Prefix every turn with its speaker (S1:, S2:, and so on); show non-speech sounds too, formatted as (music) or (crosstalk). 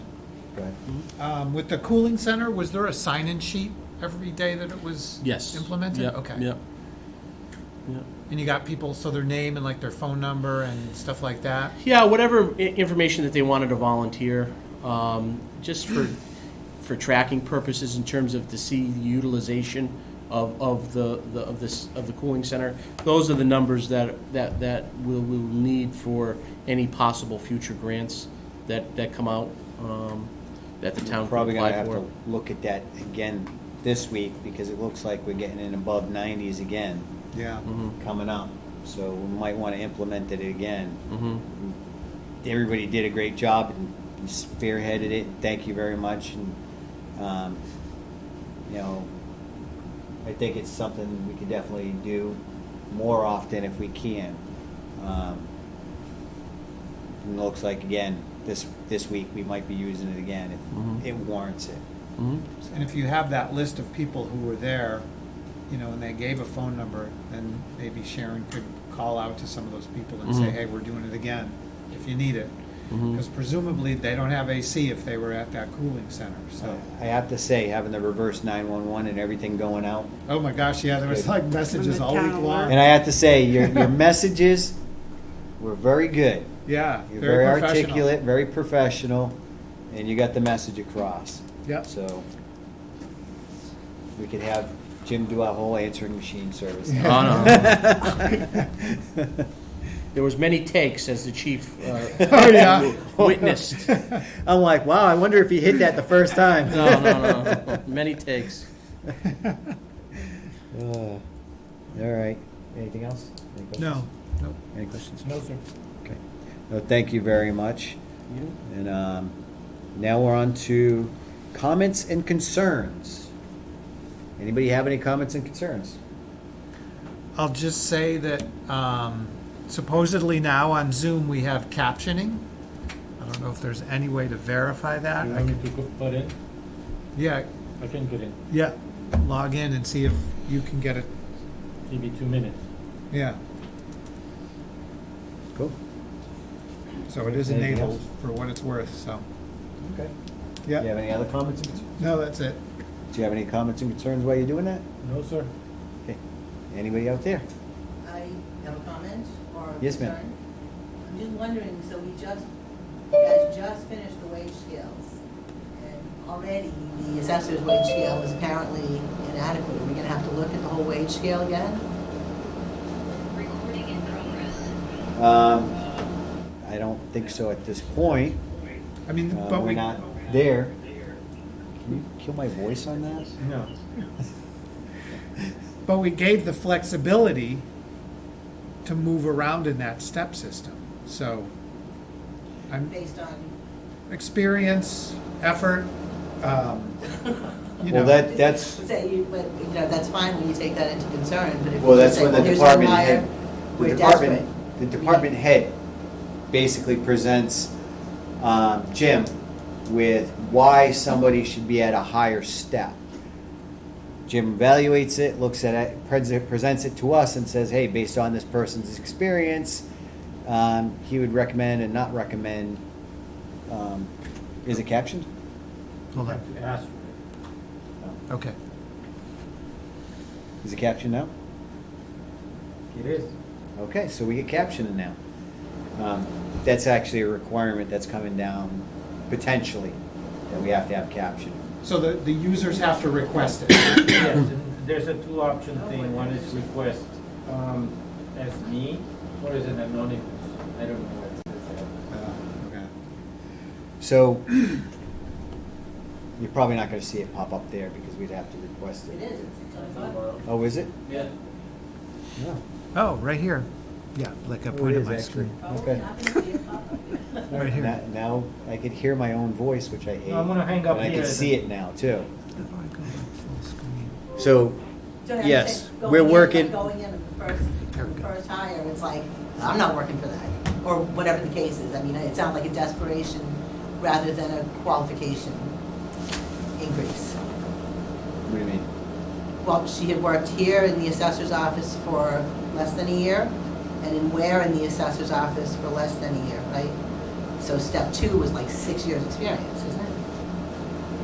S1: Go ahead.
S2: Um, With the cooling center, was there a sign-in sheet every day that it was?
S3: Yes.
S2: Implemented?
S3: Yep,
S2: Okay.
S3: Yep. Yep.
S2: And you got people, so their name and like their phone number and stuff like that?
S3: Yeah, whatever i- information that they wanted to volunteer, um, just for, for tracking purposes in terms of to see the utilization of, of the, the, of this, of the cooling center. Those are the numbers that, that, that we'll, we'll need for any possible future grants that, that come out, um, that the town could
S1: Probably gonna
S3: apply
S1: have to
S3: for.
S1: look at that again this week, because it looks like we're getting in above nineties again,
S2: Yeah.
S1: coming up. So we might wanna implement it again.
S3: Mhm.
S1: Everybody did a great job and spearheaded it, thank you very much, and, um, you know, I think it's something we could definitely do more often if we can. Um, and it looks like, again, this, this week, we might be using it again
S3: Mhm.
S1: if it warrants it.
S3: Mhm.
S2: And if you have that list of people who were there, you know, and they gave a phone number, then maybe Sharon could call out to some of those people and say,
S3: Mhm.
S2: hey, we're doing it again, if you need it.
S3: Mhm.
S2: Because presumably, they don't have AC if they were at that cooling center, so.
S1: I have to say, having the reverse nine-one-one and everything going out,
S2: Oh my gosh, yeah, there was like messages all week
S4: town
S2: long.
S1: and I have to say, your, your (laughs) messages were very good.
S2: Yeah,
S1: You're very
S2: very professional.
S1: articulate, very professional, and you got the message across.
S2: Yep.
S1: So, we could have Jim do our whole answering machine service. (laughs)
S3: Oh, no. There was many takes as the chief,
S2: (laughs)
S3: uh,
S1: Oh, yeah.
S3: witnessed.
S1: I'm like, wow, I wonder if he hit that the first time.
S3: No, no, no, many takes.
S1: (laughs) Uh, All right, anything else? Any questions?
S2: No, nope.
S1: Any questions?
S2: No, sir.
S1: Okay. No, thank you very much. And um, now we're on to comments and concerns. Anybody have any comments and concerns?
S2: I'll just say that um, supposedly now on Zoom, we have captioning. I don't know if there's any way to verify that.
S5: You
S2: I
S5: want me
S2: can-
S5: to go- put in?
S2: Yeah,
S5: I can get in.
S2: yeah, log in and see if you can get it,
S5: Give me two minutes.
S2: yeah.
S1: Cool.
S2: So it is
S1: Anything
S2: enabled
S1: else?
S2: for what it's worth, so,
S1: Okay. Do you
S2: yeah.
S1: have any other comments and concerns?
S2: No, that's it.
S1: Do you have any comments and concerns while you're doing that?
S5: No, sir.
S1: Okay. Anybody out there?
S4: I have a comment or a
S1: Yes, ma'am.
S4: concern. I'm just wondering, so we just, you guys just finished the wage scales, and already the assessor's wage scale is apparently inadequate. Are we gonna have to look at the whole wage scale again?
S6: Recording in progress.
S1: Um, I don't think so at this point.
S2: I mean,
S1: Uh,
S2: but
S1: We're
S2: we,
S1: not there. Can you kill my voice on that?
S5: No.
S2: (laughs) but we gave the flexibility to move around in that step system, so. I'm,
S4: Based on,
S2: experience, effort, um, you know.
S1: Well, that, that's.
S4: say, you, but, you know, that's fine when you take that into concern, but if
S1: Well,
S4: you
S1: that's
S4: just say,
S1: when the
S4: well, here's our
S1: department
S4: wire,
S1: head, the
S4: we're
S1: department,
S4: desperate.
S1: the department head basically presents um, Jim with why somebody should be at a higher step. Jim evaluates it, looks at it, pres- presents it to us and says, hey, based on this person's experience, um, he would recommend and not recommend, um, is it captioned?
S2: Hold
S5: I have
S2: on,
S5: to ask for
S2: okay.
S1: Is it captioned now?
S5: it. It is.
S1: Okay, so we get captioning now. Um, That's actually a requirement that's coming down potentially, that we have to have captioning.
S2: So the, the users have to request it. (coughs)
S5: Yes, and there's a two option thing. One is request um, as me or as an anonymous. I don't know what it says.
S2: Uh,
S1: So (clears throat) you're probably not gonna see it pop up there because we'd have to request
S4: It
S1: it.
S4: is, it's, it's on file.
S5: Tomorrow.
S1: Oh, is it?
S5: Yeah.
S1: No.
S2: Oh, right here. Yeah, like I
S1: Oh, it
S2: pointed
S1: is
S2: my
S1: actually.
S2: screen.
S4: Oh,
S1: Okay.
S4: not gonna be a (laughs) pop-up.
S2: Right here.
S1: Now- Now I could hear my own voice, which I hate.
S5: I'm gonna hang up
S1: And I
S5: here.
S1: can see it now too.
S2: How do I go to full screen?
S1: So,
S4: So now you
S1: Yes,
S4: said
S1: we're
S4: going in, like,
S1: working-
S4: Going in the first,
S2: There we
S4: the
S2: go.
S4: first hire, it's like, I'm not working for that, or whatever the case is. I mean, it sounds like a desperation rather than a qualification increase.
S1: what do you mean?
S4: Well, she had worked here in the assessor's office for less than a year, and in Ware in the assessor's office for less than a year, right? So step two was like six years' experience, isn't it?